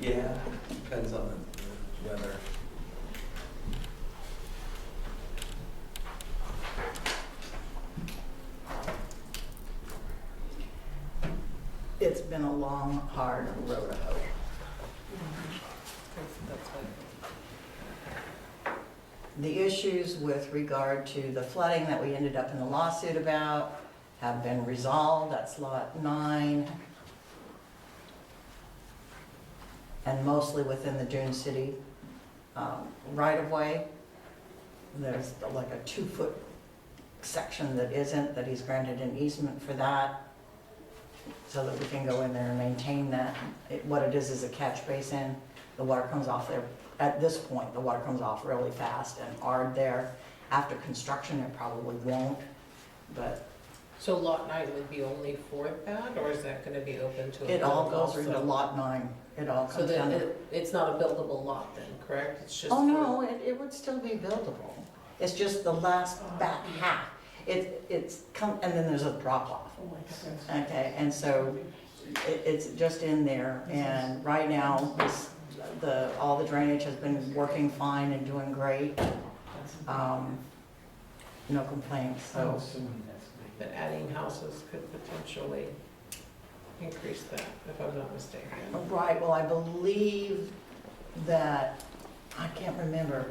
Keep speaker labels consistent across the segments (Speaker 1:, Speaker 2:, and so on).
Speaker 1: Yeah, depends on the weather.
Speaker 2: It's been a long, hard road to hoe. That's what- The issues with regard to the flooding that we ended up in the lawsuit about have been resolved, that's lot nine. And mostly within the Dune City um, right-of-way. There's like a two-foot section that isn't, that he's granted an easement for that so that we can go in there and maintain that. It- What it is, is a catch basin. The water comes off there, at this point, the water comes off really fast and hard there. After construction, it probably won't, but
Speaker 3: So lot nine would be only for that, or is that gonna be open to? a
Speaker 2: it all
Speaker 3: build
Speaker 2: goes into
Speaker 3: also?
Speaker 2: lot nine. It all
Speaker 3: So
Speaker 2: comes
Speaker 3: that,
Speaker 2: down. to-
Speaker 3: it- it's not a buildable lot then, correct? It's just.
Speaker 2: Oh,
Speaker 3: for-
Speaker 2: no, it, it would still be buildable. It's just the last back half. It, it's come, and then there's a drop off. Okay, and so it, it's just in there, and right now, this, the, all the drainage has been working fine and doing great. Um, no complaints, so,
Speaker 1: Oh.
Speaker 3: But adding houses could potentially increase that, if I'm not mistaken.
Speaker 2: right, well, I believe that, I can't remember,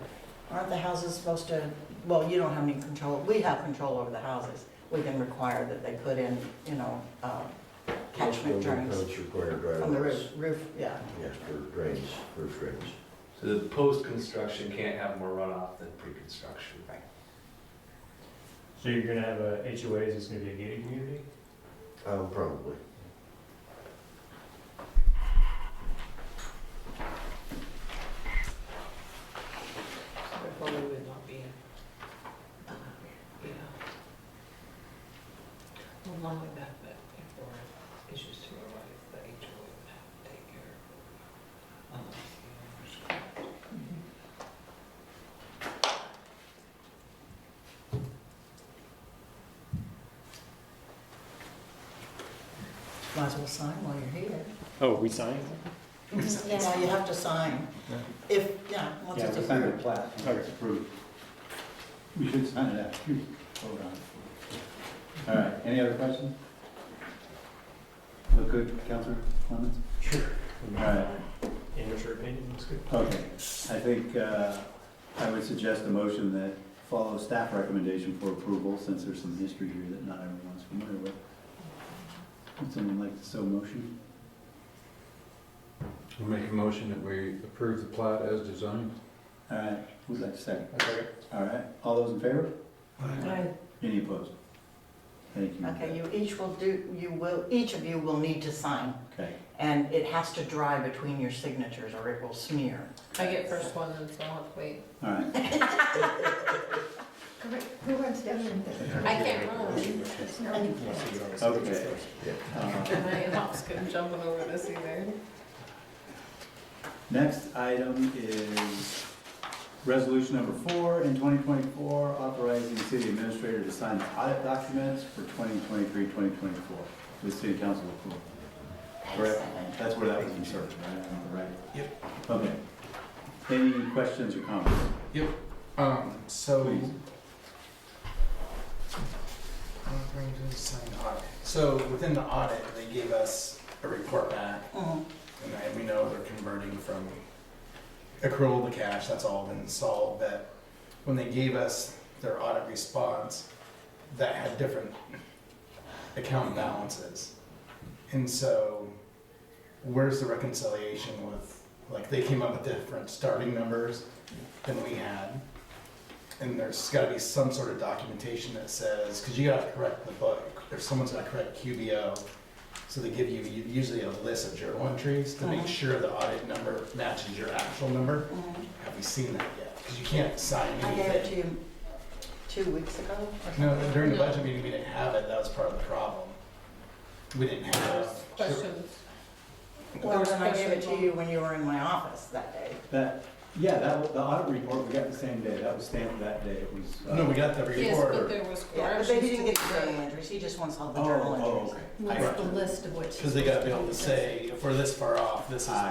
Speaker 2: aren't the houses supposed to, well, you don't have any control, we have control over the houses. We can require that they put in, you know, uh, catchment drains
Speaker 4: That's required
Speaker 2: from the
Speaker 4: driveways.
Speaker 2: roof, roof, yeah.
Speaker 4: Yes, for drains, roof drains.
Speaker 1: So the post-construction can't have more runoff than pre-construction.
Speaker 5: So you're gonna have a HOAs, it's gonna be a gated community?
Speaker 4: Um, probably.
Speaker 3: So Therefore, we would not be. uh, Yeah. Well, not only that, but if there are issues to arise, the HOA would have to take care of. um, the owners.
Speaker 2: Might as well sign while you're here.
Speaker 5: Oh, we signed?
Speaker 2: Yeah, you have to sign.
Speaker 5: Yeah.
Speaker 2: If, yeah, once
Speaker 5: Yeah,
Speaker 2: it's
Speaker 6: Sign the
Speaker 2: approved.
Speaker 6: plat, and it's approved. We should sign it after you vote on it. All right, any other questions? Look good, Counselor Clemens?
Speaker 5: Sure.
Speaker 6: All right,
Speaker 5: Amateur opinion, looks good.
Speaker 6: okay. I think uh, I would suggest a motion that follows staff recommendation for approval, since there's some history here that not everyone's familiar with. Would someone like to so motion?
Speaker 7: I'll make a motion that we approve the plat as designed.
Speaker 6: All right, who'd like to second? All right, all those in favor? Any opposed? Thank you.
Speaker 2: Okay, you each will do, you will, each of you will need to sign,
Speaker 6: Okay,
Speaker 2: and it has to dry between your signatures or it will smear.
Speaker 3: I get first one, then someone have to wait.
Speaker 6: all right.
Speaker 8: Who runs down in the,
Speaker 3: I can't run,
Speaker 8: there's no,
Speaker 6: Okay. Uh,
Speaker 3: and my hops couldn't jump over this either.
Speaker 6: Next item is resolution number four in 2024, authorizing the city administrator to sign the audit documents for 2023, 2024, with city council approval. Correct? That's where that was inserted, right? On the right? Yep. Okay. Any questions or comments?
Speaker 7: Um, so.
Speaker 6: Please.
Speaker 7: I'm going to sign the audit. So within the audit, they gave us a report back
Speaker 2: Mhm.
Speaker 7: and I, we know they're converting from accrual to cash, that's all been solved, that when they gave us their audit response, that had different account balances. And so, where's the reconciliation with, like, they came up with different starting numbers than we had. And there's gotta be some sort of documentation that says, cause you gotta correct the book, or someone's gotta correct QBO. So they give you u- usually a list of journal entries to make
Speaker 2: Mhm.
Speaker 7: sure the audit number matches your actual number.
Speaker 2: Mhm.
Speaker 7: Have we seen that yet? Because you can't sign
Speaker 2: I gave it to
Speaker 7: anything.
Speaker 2: you two weeks ago or
Speaker 7: No,
Speaker 2: something.
Speaker 7: during the budget meeting, we didn't have it, that was part of the problem. We didn't have.
Speaker 3: Questions?
Speaker 2: Well, then I gave it
Speaker 3: Questions
Speaker 2: to
Speaker 3: on-
Speaker 2: you when you were in my office that day.
Speaker 6: That, yeah, that, was- the audit report, we got the same day. That was stamped that day. It was. uh,
Speaker 7: No, we got the
Speaker 3: Yes, but
Speaker 7: report,
Speaker 3: there was
Speaker 2: Yeah,
Speaker 3: corrections
Speaker 2: but
Speaker 3: to
Speaker 2: they didn't get the journal
Speaker 3: be
Speaker 2: entries, he just wants all
Speaker 6: Oh,
Speaker 2: the journal entries.
Speaker 6: oh, okay.
Speaker 8: what's the list of what she's.
Speaker 7: because they gotta be able to say, if we're this far off, this is
Speaker 6: Aye.